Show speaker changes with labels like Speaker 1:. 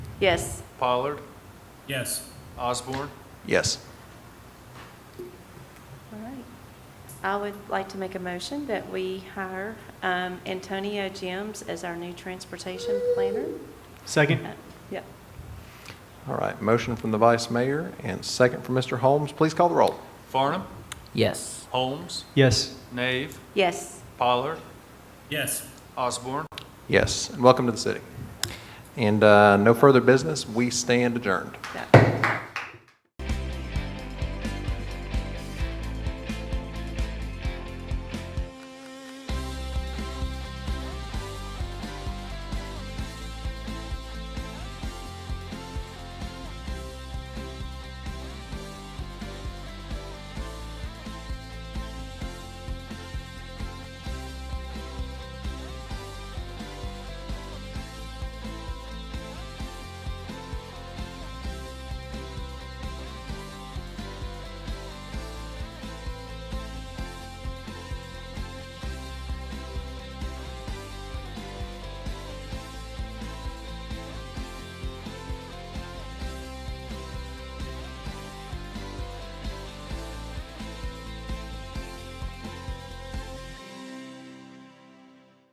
Speaker 1: Yes.
Speaker 2: Pollard,
Speaker 3: Yes.
Speaker 2: Osborne,
Speaker 4: Yes.
Speaker 1: All right. I would like to make a motion that we hire um, Antonio Gems as our new transportation planner.
Speaker 5: Second?
Speaker 1: Uh, Yep.
Speaker 4: All right, motion from the vice mayor and second from Mr. Holmes. Please call the roll.
Speaker 2: Farnum,
Speaker 6: yes,
Speaker 2: Holmes,
Speaker 5: Yes.
Speaker 2: Nave,
Speaker 1: Yes.
Speaker 2: Pollard,
Speaker 3: Yes.
Speaker 2: Osborne.
Speaker 4: Yes, and welcome to the city. And uh, no further business, we stand adjourned.
Speaker 1: Yep.